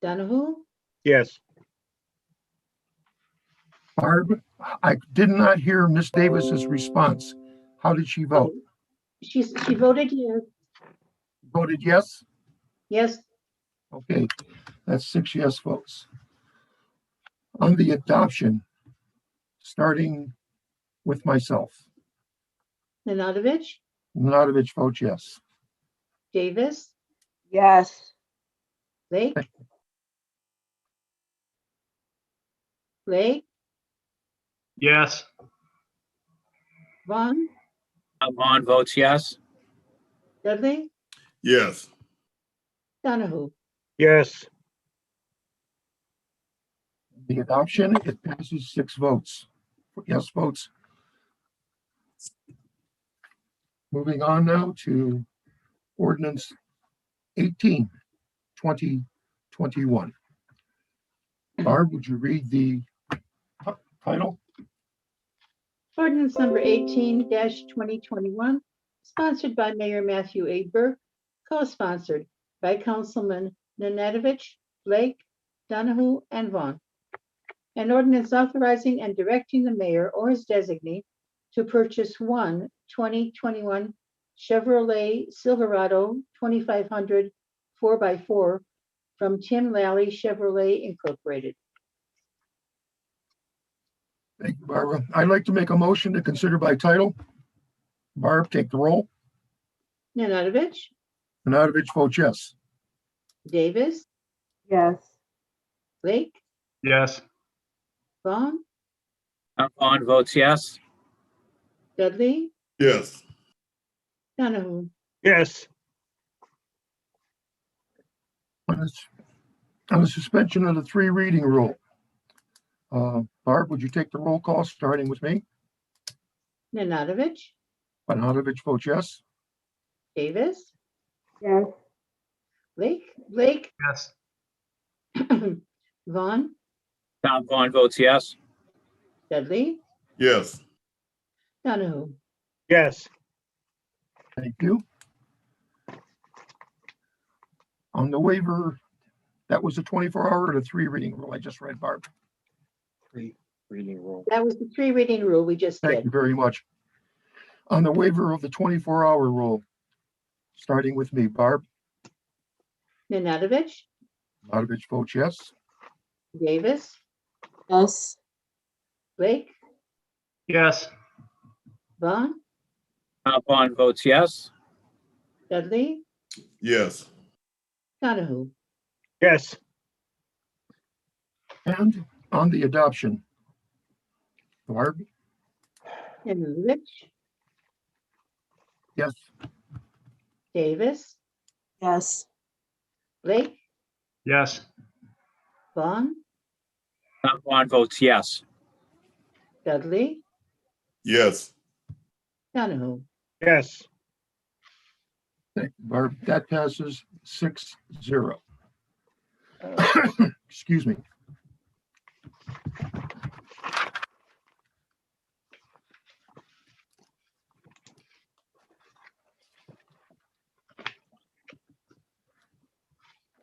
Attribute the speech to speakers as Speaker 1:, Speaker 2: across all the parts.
Speaker 1: Donahue,
Speaker 2: Yes.
Speaker 3: Barb, I did not hear Miss Davis's response. How did she vote?
Speaker 1: she's, she voted yes,
Speaker 3: Voted yes?
Speaker 1: yes,
Speaker 3: Okay, that's six yes votes. On the adoption, starting with myself,
Speaker 1: Nanadovich,
Speaker 3: Nanadovich votes yes.
Speaker 1: Davis,
Speaker 4: Yes.
Speaker 1: Lake. Lake,
Speaker 2: Yes.
Speaker 1: Vaughn,
Speaker 5: Uh, Vaughn votes yes.
Speaker 1: Dudley,
Speaker 6: yes,
Speaker 1: Donahue.
Speaker 2: Yes.
Speaker 3: The adoption, it passes six votes, yes votes. Moving on now to ordinance 18, 2021. Barb, would you read the ti- title?
Speaker 1: Ordinance number eighteen twenty twenty-one, sponsored by Mayor Matthew A. Burke, co-sponsored by Councilman Nanadovich, Blake, Donahue, and Vaughn. An ordinance authorizing and directing the mayor or his designee to purchase one 2021 Chevrolet Silverado 2500 4 x four from Tim Lally Chevrolet Incorporated.
Speaker 3: Thank you, Barbara. I'd like to make a motion to consider by title. Barb, take the roll.
Speaker 1: Nanadovich,
Speaker 3: Nanadovich votes yes.
Speaker 1: Davis,
Speaker 4: Yes.
Speaker 1: Blake,
Speaker 2: Yes.
Speaker 1: Vaughn,
Speaker 5: Uh, Vaughn votes yes.
Speaker 1: Dudley,
Speaker 6: yes,
Speaker 1: Donahue.
Speaker 2: Yes.
Speaker 3: On the s- on the suspension of the three reading rule. Uh, Barb, would you take the roll call, starting with me?
Speaker 1: Nanadovich,
Speaker 3: Nanadovich votes yes.
Speaker 1: Davis,
Speaker 4: Yes.
Speaker 1: Blake, Blake,
Speaker 2: Yes.
Speaker 1: Vaughn,
Speaker 5: Tom Vaughn votes yes.
Speaker 1: Dudley,
Speaker 6: yes,
Speaker 1: Donahue.
Speaker 2: Yes.
Speaker 3: Thank you. On the waiver, that was a 24-hour or the three reading rule I just read, Barb.
Speaker 5: Reading roll.
Speaker 1: That was the three reading rule we just
Speaker 3: Thank you
Speaker 1: did.
Speaker 3: very much. On the waiver of the 24-hour rule, starting with me, Barb,
Speaker 1: Nanadovich,
Speaker 3: Nanadovich votes yes.
Speaker 1: Davis,
Speaker 4: Yes.
Speaker 1: Blake,
Speaker 2: Yes.
Speaker 1: Vaughn,
Speaker 5: Tom Vaughn votes yes.
Speaker 1: Dudley,
Speaker 6: yes,
Speaker 1: Donahue.
Speaker 2: Yes.
Speaker 3: And on the adoption. Barb,
Speaker 1: Nanadovich,
Speaker 3: yes,
Speaker 1: Davis,
Speaker 4: Yes.
Speaker 1: Blake,
Speaker 2: Yes.
Speaker 1: Vaughn,
Speaker 5: Tom Vaughn votes yes.
Speaker 1: Dudley,
Speaker 6: yes,
Speaker 1: Donahue.
Speaker 2: Yes.
Speaker 3: thank you, Barb, that passes six zero. Excuse me.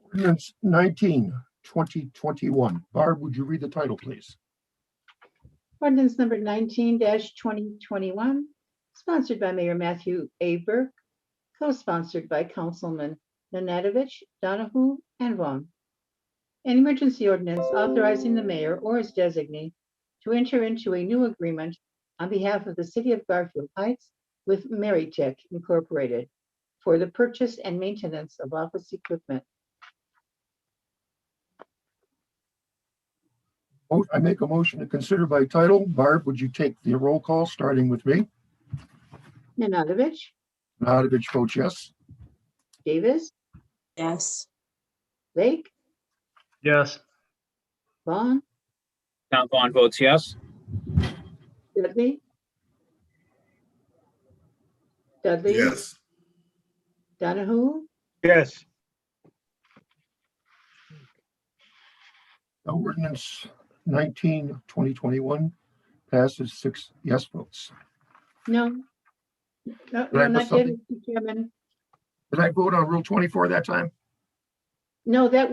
Speaker 3: Ordinance 19, 2021. Barb, would you read the title, please?
Speaker 1: Ordinance number nineteen twenty twenty-one, sponsored by Mayor Matthew A. Burke, co-sponsored by Councilman Nanadovich, Donahue, and Vaughn. An emergency ordinance authorizing the mayor or his designee to enter into a new agreement on behalf of the city of Garfield Heights with Marytech Incorporated for the purchase and maintenance of office equipment.
Speaker 3: Vote. Oh, I make a motion to consider by title. Barb, would you take the roll call, starting with me?
Speaker 1: Nanadovich,
Speaker 3: Nanadovich votes yes.
Speaker 1: Davis,
Speaker 4: Yes.
Speaker 1: Lake,
Speaker 2: Yes.
Speaker 1: Vaughn,
Speaker 5: Tom Vaughn votes yes.
Speaker 1: Dudley? Dudley?
Speaker 6: yes,
Speaker 1: Donahue?
Speaker 2: Yes.
Speaker 3: Now, Ordinance 19, 2021 passes six yes votes.
Speaker 1: No. No,
Speaker 3: I
Speaker 1: no,
Speaker 3: miss
Speaker 1: not yet, Mr. Chairman.
Speaker 3: Did I vote on Rule 24 that time?
Speaker 1: No, that